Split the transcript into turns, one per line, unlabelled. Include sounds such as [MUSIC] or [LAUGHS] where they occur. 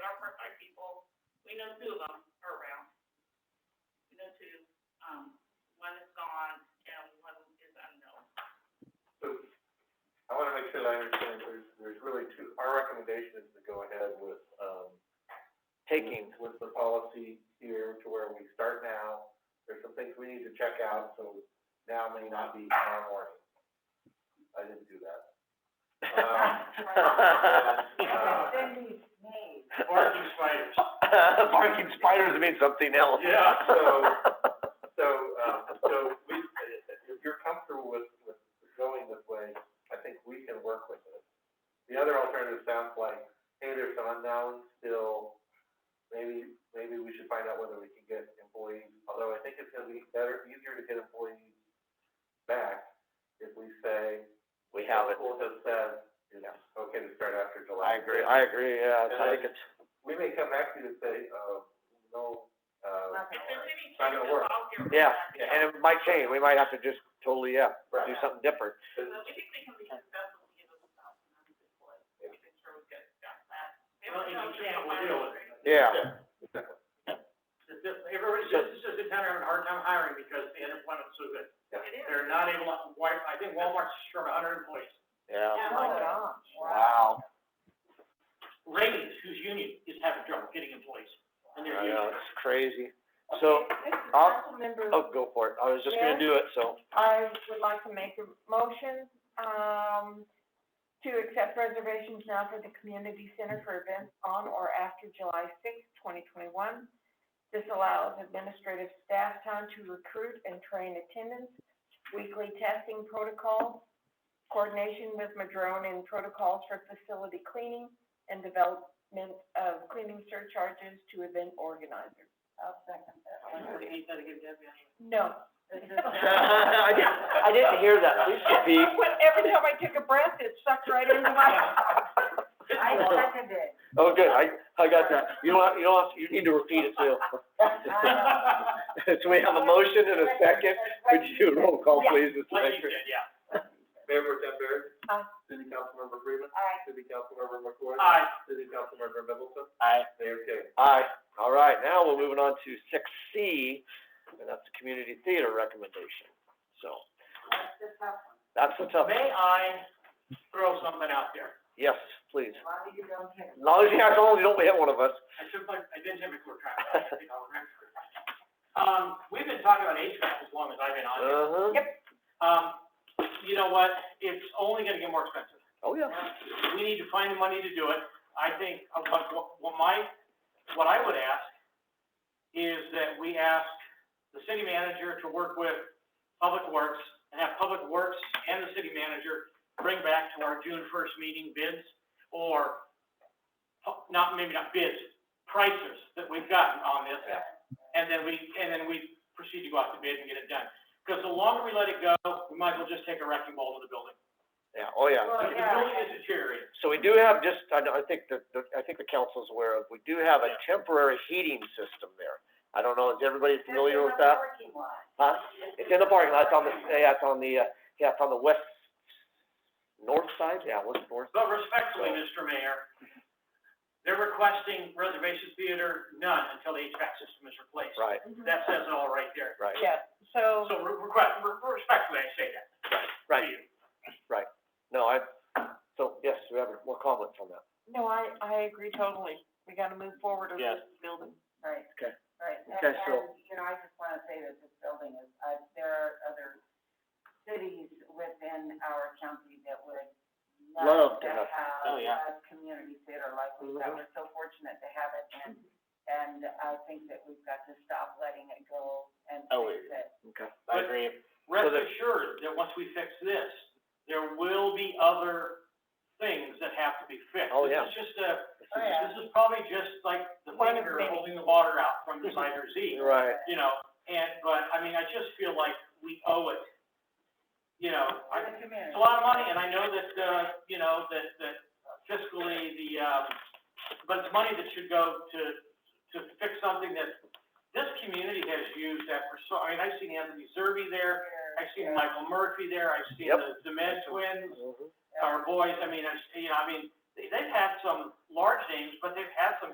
Park Park people, we know two of them are around. We know two, um, one is gone and one is unknown.
I wanna make sure that I understand, there's, there's really two, our recommendation is to go ahead with, um, taking with the policy here to where we start now. There's some things we need to check out, so now may not be tomorrow morning. I didn't do that. Um,
Parking
[LAUGHS]
spiders.
Uh, Barking spiders means something else.
Yeah,
[LAUGHS]
so- So, um, so we, if you're comfortable with, with going this way, I think we can work with it. The other alternative sounds like, hey, there's some unknowns still, maybe, maybe we should find out whether we can get employees, although I think it's gonna be better, easier to get employees back if we say,
We have it.
school has said, you know, okay to start after July.
I agree, I agree, yeah, it's- I think it's,
We may come back to you and say, uh, no, uh.
If there's any
Not gonna
changes,
work.
I'll get rid of
yeah,
that.
and it might change, we might have to just totally, yeah,
Right.
do something different.
So we think we can be successful, we give us a thousand hundred and forty, we can sure we get that. Maybe
Well, if
we'll
you can't,
find
we'll deal with
out.
it.
Yeah,
Exactly.
It's just- Everybody says, this is the town having a hard time hiring because the unemployment's so good.
It is.
They're not able, to- Wal- I think Walmart's short of hundred employees.
yeah,
Oh
my
Oh. wow,
Ray's, whose union, is having trouble getting employees, and their
I know,
[LAUGHS] union.
it's crazy. So, I'll, oh, go for it, I was just gonna do it, so,
I would like to make a motion, um, to accept reservations now for the community center for events on or after July sixth, twenty twenty-one. This allows administrative staff time to recruit and train attendants, weekly testing protocols, coordination with Madrone and protocols for facility cleaning, and development of cleaning surcharges to event organizers. I'll second that.
Ain't that a good idea?
No.
[LAUGHS]
[LAUGHS]
I didn't, I didn't hear that, please repeat.
When- Every time I take a breath, it sucks right into
[LAUGHS]
my.
I
second
[LAUGHS]
it.
Oh, good, I, I got that, you don't, have- you don't, have- you need to repeat it too. [LAUGHS] So we have a motion and a second, could you roll call please, Mr.
Like you
Baker?
said, yeah.
Mayor Pro Tem Barry?
Aye.
City Councilmember Freeman?
Aye.
City Councilmember McCoy?
Aye.
City Councilmember Middleton?
Aye.
Mayor Kay?
Aye, all right, now we're moving on to six C, and that's the community theater recommendation, so. That's the tough one.
May I throw something out there?
yes, please. As long as you as long as you don't hit one of us.
I took my, I did have a quick track, I think I'll remember. Um, we've been talking about HVAC as long as I've been on here.
Uh-huh,
Yep.
Um, you know what, it's only gonna get more expensive.
oh, yeah.
We need to find the money to do it. I think, uh, what, what- what my, what I would ask is that we ask the city manager to work with Public Works and have Public Works and the city manager bring back to our June first meeting bids or, oh, not, maybe not bids, prices that we've gotten on this. And then we, and then we proceed to go out to bid and get it done. Because the longer we let it go, we might as well just take a wrecking ball to the building.
Yeah, oh, yeah.
Well,
The
yeah.
building is deteriorating.
So we do have just, I, know- I think the, the, I think the council's aware of, we do have a
Yeah.
temporary heating system there. I don't know, is everybody familiar with that? Huh? It's in the parking lot, it's on the, yeah, it's on the, uh, yeah, it's on the west, north side, yeah, west north.
But respectfully, Mr. Mayor, they're requesting reservation theater none until the HVAC system is replaced.
Right,
That says it all right there.
right,
Yeah, so,
So re- request, re- respectfully, I say that.
right,
To you.
no, I, so, yes, we have more comments on that.
no, I, I agree totally. We gotta move forward with
Yes.
this building. Right.
Okay.
Right.
Okay, so-
you know, I just wanna say that this building is, uh, there are other cities within our county that would
Love to have-
Oh, yeah.
a community theater like we've got.
Mhm.
We're so fortunate to have it and, and I think that we've got to stop letting it go and
Oh,
fix it.
Okay.
I
agree.
Rest
So the-
assured that once we fix this, there will be other things that have to be fixed.
Oh, yeah.
This is just a,
Oh, yeah.
this is probably just like the
One of
finger
many.
holding the water
[LAUGHS]
out from designer Z.
Right,
you know, and, but, I mean, I just feel like we owe it, you know, I,
The community.
it's a lot of money, and I know that, uh, you know, that, that fiscally, the, um, but it's money that should go to, to fix something that this community has used that for so, I mean, I've seen Anthony Zerbe there, I've seen Michael Murphy there, I've seen
Yep.
the, the Med twins,
mhm,
our boys, I mean, I've, seen- you know, I mean, they, they've had some large names, but they've had some